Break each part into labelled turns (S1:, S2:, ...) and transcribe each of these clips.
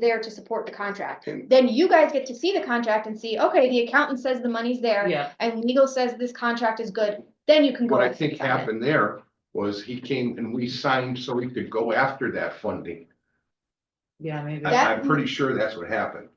S1: there to support the contract.
S2: And-
S1: Then you guys get to see the contract and see, okay, the accountant says the money's there
S3: Yeah,
S1: and legal says this contract is good, then you can go.
S2: What I
S1: and
S2: think
S1: sign it.
S2: happened there was he came and we signed so he could go after that funding.
S3: yeah, maybe.
S1: That-
S2: I, I'm pretty sure that's what happened.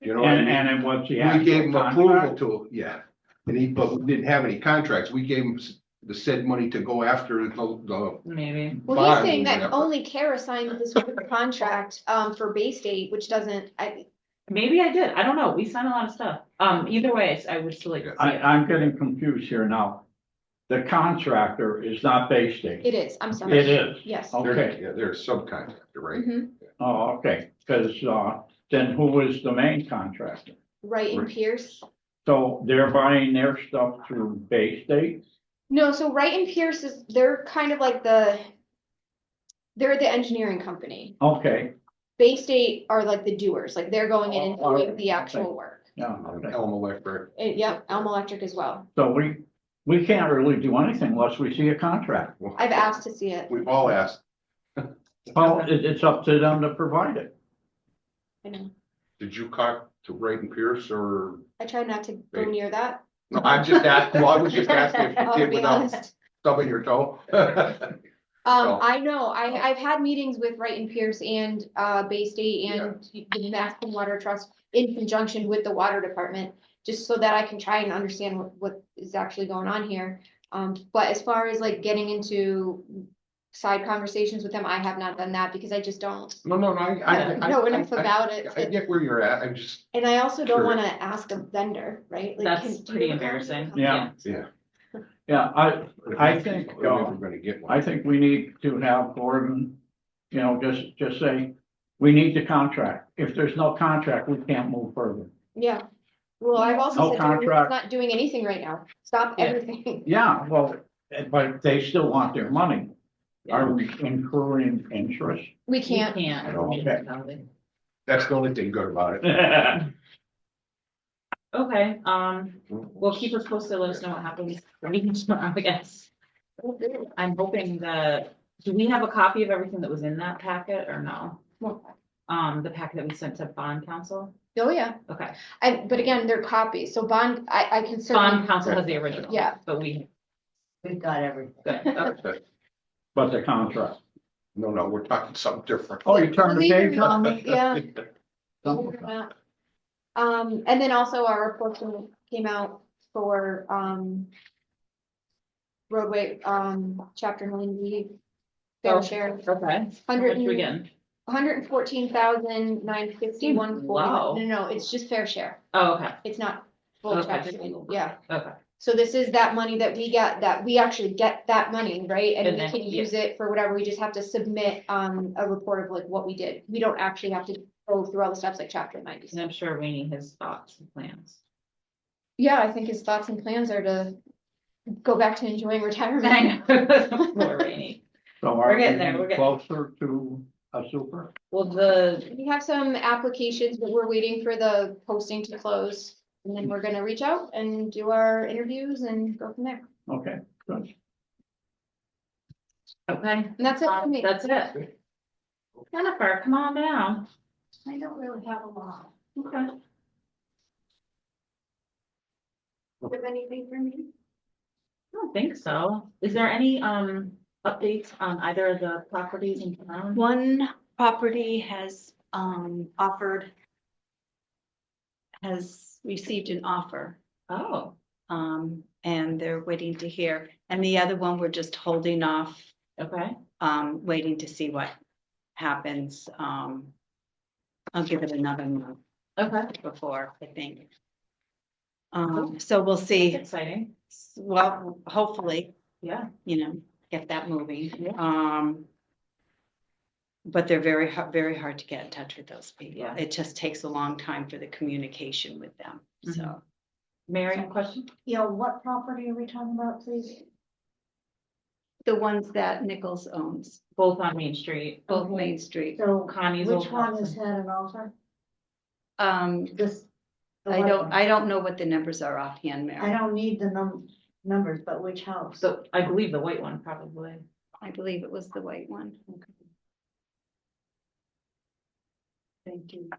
S2: You know, what I
S4: And,
S2: mean?
S4: and then what's the
S2: we gave him
S4: actual
S2: approval
S4: contract?
S2: to, yeah, and he, but we didn't have any contracts. We gave him s- the said money to go after the, the.
S3: Maybe.
S1: Well, he's
S2: bond,
S1: saying that
S2: whatever.
S1: only Kara signed this contract, um, for Bay State, which doesn't, I,
S3: Maybe I did. I don't know. We signed a lot of stuff. Um, either way, it's- I would still like to see
S4: I,
S3: it.
S4: I'm getting confused here now. The contractor is not Bay State.
S1: it is, I'm sorry.
S4: It is.
S1: Yes.
S2: Oh,
S4: Okay,
S2: Yeah, they're a subcontractor, right?
S1: Mhm.
S4: oh, okay, because, uh, then who is the main contractor?
S1: Right in
S2: Right.
S1: Pierce.
S4: So they're buying their stuff through Bay State?
S1: No, so Wright and Pierce is, they're kind of like the, they're the engineering company.
S4: Okay,
S1: Bay State are like the doers, like they're going in and
S4: Oh,
S1: doing the
S4: okay.
S1: actual work.
S4: yeah,
S2: Um,
S4: okay.
S2: Elm Electric,
S1: Eh, Yep, Elm Electric as well.
S4: So we, we can't really do anything unless we see a contract.
S2: well,
S1: I've asked to see it.
S2: We've all asked,
S4: Well, it, it's up to them to provide it.
S1: I know.
S2: did you talk to Brayden Pierce or?
S1: I try not to go
S2: Right.
S1: near that.
S2: No, I'm just asking, well, I was just asking if you
S1: I'll
S2: did
S1: be
S2: without
S1: honest.
S2: stubbing your toe.
S1: Um,
S2: So-
S1: I know,
S2: Oh.
S1: I, I've had meetings with Wright and Pierce and, uh, Bay State
S2: Yeah.
S1: and the Mascom Water Trust in conjunction with the water department, just so that I can try and understand what, what is actually going on here. Um, but as far as like getting into side conversations with them, I have not done that because I just don't
S2: No, no, no, I, I. I-
S1: know enough
S2: I- I-
S1: about it.
S2: I get where you're at, I'm just,
S1: And I also
S2: Sure.
S1: don't wanna ask a vendor, right? Like,
S3: That's
S1: can- do you
S3: pretty
S1: have a-
S3: embarrassing.
S4: Yeah.
S2: yeah.
S4: Yeah, I, I think,
S2: We're never
S4: uh,
S2: gonna get one.
S4: I think we need to have Gordon, you know, just, just say, we need the contract. If there's no contract, we can't move further.
S1: Yeah. Well, I've also
S4: No
S1: said, to them, "We're
S4: contract.
S1: not doing anything right now. Stop
S3: Yeah.
S1: everything.
S4: Yeah, well, but they still want their money. Are we incurring interest?
S1: We
S3: You
S1: can't.
S3: Can't.
S4: Okay.
S2: That's the only thing good about it.
S3: Okay, um, well, keep us posted. Let us know what happens. We're meeting tomorrow, I guess. I'm hoping that, do we have a copy of everything that was in that packet or no?
S1: Oh,
S3: Um, the packet that we sent to bond council?
S1: yeah.
S3: Okay,
S1: I, but again, they're copies, so bond, I, I can certainly,
S3: bond council has the original.
S1: Yeah.
S3: But we,
S5: We've got everything.
S3: good, okay.
S4: But the contract.
S2: No, no, we're talking something different.
S4: Oh, you turned the
S1: Believe it or
S4: page
S1: not.
S4: on me?
S1: yeah.
S4: Something.
S1: Um, and then also our report came- came out for, um, roadway, um, chapter ninety, fair
S3: Oh.
S1: share,
S3: Okay.
S1: Hundred
S3: Which we
S1: and-
S3: get.
S1: hundred and fourteen thousand nine fifty-one forty.
S3: Wow.
S1: No, no, it's just fair share.
S3: Oh, okay,
S1: It's not full
S3: Okay.
S1: chapter, 90, yeah.
S3: okay.
S1: So this is that money that we get, that we actually get that money, right? And
S3: And
S1: we
S3: then-
S1: can use it for whatever, we just have to submit, um, a report of like what we did. We don't actually have to go through all the steps like chapter ninety.
S3: And I'm sure Rainey has thoughts and plans.
S1: Yeah, I think his thoughts and plans are to go back to enjoying retirement.
S3: I know. Poor Rainey.
S4: So
S3: We're
S4: are
S3: getting there, we're
S4: we
S3: getting-
S4: closer to a super?
S3: Well, the,
S1: We have some applications, but we're waiting for the posting to close. And then we're gonna reach out and do our interviews and go from there.
S4: Okay, good.
S3: okay,
S1: And that's it for
S3: um,
S1: me.
S3: that's it. Jennifer, come on down.
S5: I don't really have a lot.
S3: Okay.
S5: Do you have anything for me?
S3: I don't think so. Is there any, um, updates on either of the properties in town?
S5: One property has um offered. Has received an offer
S3: Oh,
S5: um and they're waiting to hear. And the other one, we're just holding off,
S3: okay,
S5: um waiting to see what happens. Um. I'll give it another month
S3: okay.
S5: before, I think. Um, so we'll see.
S3: Exciting,
S5: Well, hopefully,
S3: yeah.
S5: you know, get that moving.
S3: Yeah.
S5: Um. But they're very, har- very hard to get in touch with those people.
S3: Yeah.
S5: It just takes a long time for the communication with them, so.
S3: Mary, question?
S6: Yeah, what property are we talking about, please?
S5: The ones that Nichols owns,
S3: Both on Main Street,
S5: both Main Street,
S6: So
S3: Connie's old
S6: which one
S3: house.
S6: has had an offer?
S5: um,
S6: This. the
S5: I
S6: white
S5: don't,
S6: one.
S5: I don't know what the numbers are offhand,
S6: I
S5: Mary.
S6: don't need the num- numbers, but which house?
S3: So I believe the white one probably.
S5: I believe it was the white one.
S6: Thank you.